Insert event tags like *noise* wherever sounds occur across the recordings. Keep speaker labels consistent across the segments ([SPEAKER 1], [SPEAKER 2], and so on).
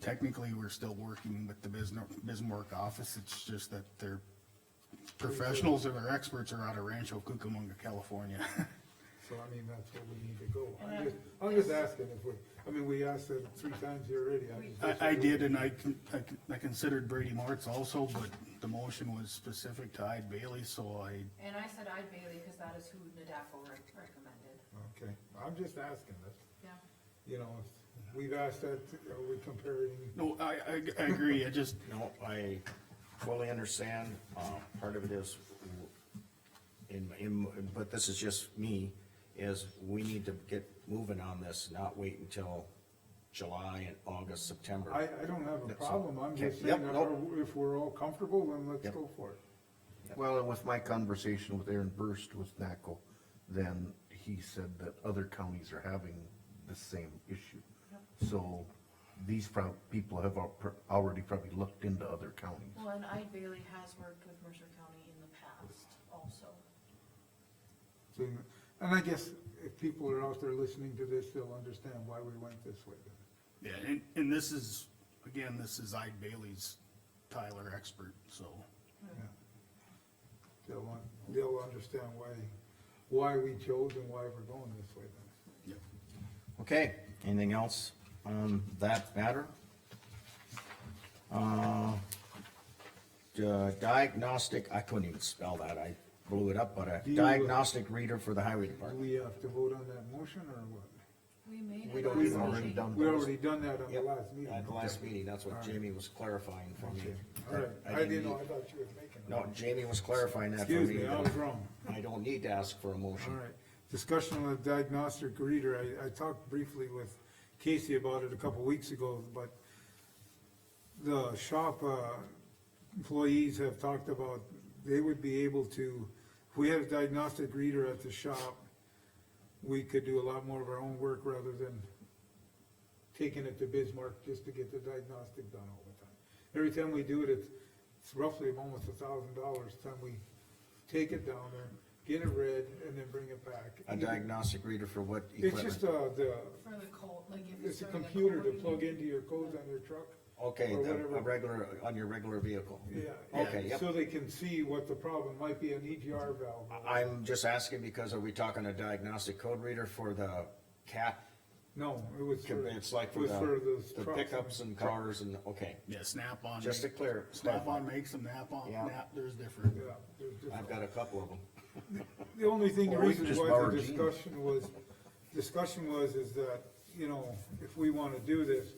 [SPEAKER 1] technically, we're still working with the Bismarck, Bismarck office, it's just that they're professionals or their experts are out of Rancho Cucamonga, California. *laughs*
[SPEAKER 2] So I mean, that's where we need to go. I'm just, I'm just asking if we, I mean, we asked it three times here already. I just-
[SPEAKER 1] I, I did, and I, con- I con- I considered Brady Martz also, but the motion was specific to Hyde Bailey, so I,
[SPEAKER 3] And I said I'd Bailey, cause that is who Nadafo re- recommended,
[SPEAKER 2] Okay, I'm just asking this,
[SPEAKER 3] yeah.
[SPEAKER 2] you know, if we've asked that, are we comparing?
[SPEAKER 1] no, I, I, I agree, I just,
[SPEAKER 4] No, I fully understand, uh, part of it is, in, in, but this is just me, is we need to get moving on this, not wait until July and August, September.
[SPEAKER 2] I, I don't have a
[SPEAKER 4] That's all.
[SPEAKER 2] problem, I'm just
[SPEAKER 4] Okay, yep,
[SPEAKER 2] saying, that
[SPEAKER 4] nope.
[SPEAKER 2] we're- if we're all comfortable, then let's
[SPEAKER 4] Yep.
[SPEAKER 2] go for it.
[SPEAKER 5] Well, and with my conversation with Aaron Burst with NACO, then he said that other counties are having the same issue. So these prob, people have al- pr- already probably looked into other counties.
[SPEAKER 6] Well, and Ide Bailey has worked with Mercer County in the past also.
[SPEAKER 2] So, And I guess if people are out there listening to this, they'll understand why we went this way.
[SPEAKER 1] yeah, and, and this is, again, this is Hyde Bailey's Tyler expert, so.
[SPEAKER 2] Yeah. They'll, un- they'll understand why, why we chose and why we're going this way then.
[SPEAKER 1] Yep.
[SPEAKER 4] Okay, anything else on that matter? Uh, d- diagnostic, I couldn't even spell that, I blew it up, but a
[SPEAKER 2] Do you, uh,
[SPEAKER 4] diagnostic reader for the highway
[SPEAKER 2] Do
[SPEAKER 4] department.
[SPEAKER 2] we have to vote on that motion or what?
[SPEAKER 6] We made it.
[SPEAKER 4] We don't
[SPEAKER 6] last
[SPEAKER 4] even already
[SPEAKER 6] meeting.
[SPEAKER 5] done
[SPEAKER 2] We
[SPEAKER 5] those.
[SPEAKER 2] already done that on the
[SPEAKER 4] Yep,
[SPEAKER 2] last meeting.
[SPEAKER 4] At the last meeting, that's what
[SPEAKER 2] Alright.
[SPEAKER 4] Jamie was clarifying for me.
[SPEAKER 2] Okay, all right,
[SPEAKER 4] I
[SPEAKER 2] I didn't know, I
[SPEAKER 4] need-
[SPEAKER 2] thought you were making. it.
[SPEAKER 4] No, Jamie was clarifying that for
[SPEAKER 2] Excuse
[SPEAKER 4] me.
[SPEAKER 2] me, I was wrong.
[SPEAKER 4] I don't need to ask for a
[SPEAKER 2] All
[SPEAKER 4] motion.
[SPEAKER 2] right, discussion on the diagnostic reader, I, I talked briefly with Casey about it a couple weeks ago, but the shop, uh, employees have talked about, they would be able to, if we had a diagnostic reader at the shop, we could do a lot more of our own work rather than taking it to Bismarck just to get the diagnostic done all the time. Every time we do it, it's, it's roughly almost a thousand dollars, time we take it down there, get it read, and then bring it back.
[SPEAKER 4] A diagnostic reader for what
[SPEAKER 2] It's just,
[SPEAKER 4] equipment?
[SPEAKER 2] uh, the,
[SPEAKER 6] For the cold, like if it's
[SPEAKER 2] it's a
[SPEAKER 6] during the
[SPEAKER 2] computer to
[SPEAKER 6] cold,
[SPEAKER 2] plug into your codes on your truck.
[SPEAKER 4] Okay,
[SPEAKER 2] or
[SPEAKER 4] the,
[SPEAKER 2] whatever.
[SPEAKER 4] a regular, on your regular vehicle? Okay,
[SPEAKER 2] Yeah,
[SPEAKER 4] yep.
[SPEAKER 2] so they can see what the problem might be, an EGR valve.
[SPEAKER 4] I'm just asking because are we talking a diagnostic code reader for the cat?
[SPEAKER 2] No, it was for, it was
[SPEAKER 4] It's like
[SPEAKER 2] for
[SPEAKER 4] for the,
[SPEAKER 2] those
[SPEAKER 4] the
[SPEAKER 2] trucks.
[SPEAKER 4] pickups and cars and, okay,
[SPEAKER 1] Yeah, Snap-on.
[SPEAKER 4] just to clear.
[SPEAKER 1] Snap-on makes them, Nap-on,
[SPEAKER 4] Yeah.
[SPEAKER 1] Nap, there's different.
[SPEAKER 2] Yeah, there's just-
[SPEAKER 4] I've got a couple of them.
[SPEAKER 2] The only thing, the
[SPEAKER 5] Or we
[SPEAKER 2] reason
[SPEAKER 5] could just
[SPEAKER 2] why
[SPEAKER 5] borrow
[SPEAKER 2] the
[SPEAKER 5] Gene's.
[SPEAKER 2] discussion was, discussion was is that, you know, if we wanna do this,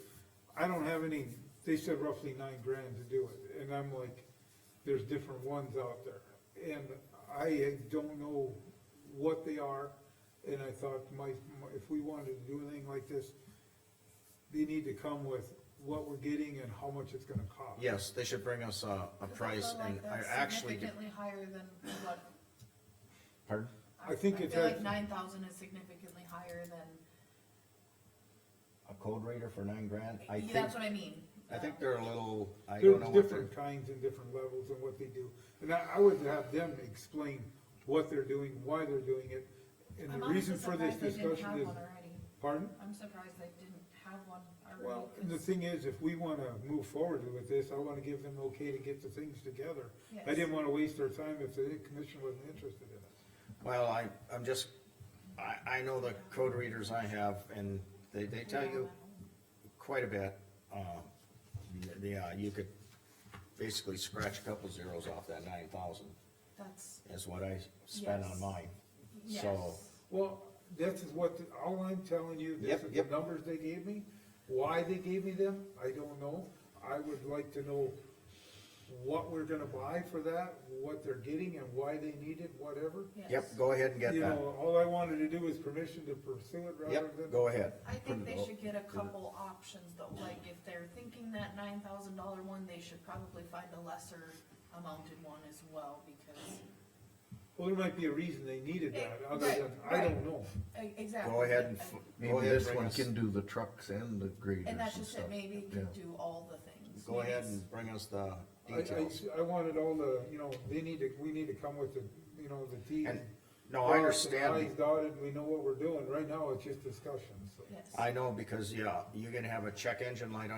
[SPEAKER 2] I don't have any, they said roughly nine grand to do it, and I'm like, there's different ones out there. And I don't know what they are, and I thought my, my- if we wanted to do anything like this, they need to come with what we're getting and how much it's gonna cost.
[SPEAKER 4] Yes, they should bring us a, a
[SPEAKER 6] I
[SPEAKER 4] price
[SPEAKER 6] feel
[SPEAKER 4] and
[SPEAKER 6] like
[SPEAKER 4] I
[SPEAKER 6] that's
[SPEAKER 4] actually, did-
[SPEAKER 6] Significantly higher than what.
[SPEAKER 4] pardon?
[SPEAKER 2] I think it's
[SPEAKER 6] I feel
[SPEAKER 2] at-
[SPEAKER 6] like nine thousand is significantly higher than,
[SPEAKER 4] A code reader for nine grand? I think,
[SPEAKER 6] that's what I mean.
[SPEAKER 4] I think they're a little, I
[SPEAKER 2] There's
[SPEAKER 4] don't know what they're.
[SPEAKER 2] different kinds and different levels and what they do, and I, I would have them explain what they're doing, why they're doing it, and
[SPEAKER 6] I'm
[SPEAKER 2] the
[SPEAKER 6] honestly
[SPEAKER 2] reason for this
[SPEAKER 6] surprised they didn't
[SPEAKER 2] discussion
[SPEAKER 6] have
[SPEAKER 2] is,
[SPEAKER 6] one already.
[SPEAKER 2] pardon?
[SPEAKER 6] I'm surprised they didn't have one already.
[SPEAKER 2] Well, and the
[SPEAKER 6] 'cause-
[SPEAKER 2] thing is, if we wanna move forward with this, I wanna give them okay to get the things together. I
[SPEAKER 6] Yes.
[SPEAKER 2] didn't wanna waste our time if the commission wasn't interested in it.
[SPEAKER 4] Well, I, I'm just, I, I know the code readers I have, and they, they tell you quite a bit. Um, yeah, you could basically scratch a couple zeros off that nine thousand,
[SPEAKER 6] That's,
[SPEAKER 4] is what I spent on
[SPEAKER 6] Yes.
[SPEAKER 4] mine. So,
[SPEAKER 6] yes.
[SPEAKER 2] Well, this is what, all I'm telling you, this
[SPEAKER 4] Yep,
[SPEAKER 2] is the
[SPEAKER 4] yep.
[SPEAKER 2] numbers they gave me, why they gave me them, I don't know. I would like to know what we're gonna buy for that, what they're getting and why they need it, whatever.
[SPEAKER 4] yep, go ahead and get
[SPEAKER 2] You
[SPEAKER 4] that.
[SPEAKER 2] know, all I wanted to do is permission to pursue it rather
[SPEAKER 4] Yep,
[SPEAKER 2] than,
[SPEAKER 4] go ahead.
[SPEAKER 6] I think they should get a couple options though, like if they're thinking that nine thousand dollar one, they should probably find a lesser amounted one as well, because.
[SPEAKER 2] well, there might be a reason they needed that,
[SPEAKER 6] Eh,
[SPEAKER 2] other
[SPEAKER 6] right,
[SPEAKER 2] than, I don't
[SPEAKER 6] right.
[SPEAKER 2] know.
[SPEAKER 6] E- Exactly.
[SPEAKER 4] Go ahead and.
[SPEAKER 6] I-
[SPEAKER 4] f- go
[SPEAKER 5] Maybe
[SPEAKER 4] ahead and
[SPEAKER 5] this
[SPEAKER 4] bring
[SPEAKER 5] one
[SPEAKER 4] us-
[SPEAKER 5] can do the trucks and the graders
[SPEAKER 6] And
[SPEAKER 5] and
[SPEAKER 6] that's just
[SPEAKER 5] stuff.
[SPEAKER 6] it, maybe you
[SPEAKER 5] Yeah.
[SPEAKER 6] can do all the things.
[SPEAKER 4] Go
[SPEAKER 6] Maybe
[SPEAKER 4] ahead
[SPEAKER 6] it's-
[SPEAKER 4] and bring us the
[SPEAKER 2] I, I,
[SPEAKER 4] details.
[SPEAKER 2] I wanted all the, you know, they need to, we need to come with the, you know, the T.
[SPEAKER 4] And, no, I understand.
[SPEAKER 2] I's dotted, we know what we're doing, right now it's just discussion, so.
[SPEAKER 6] Yes.
[SPEAKER 4] I know, because, yeah, you're gonna have a check engine light on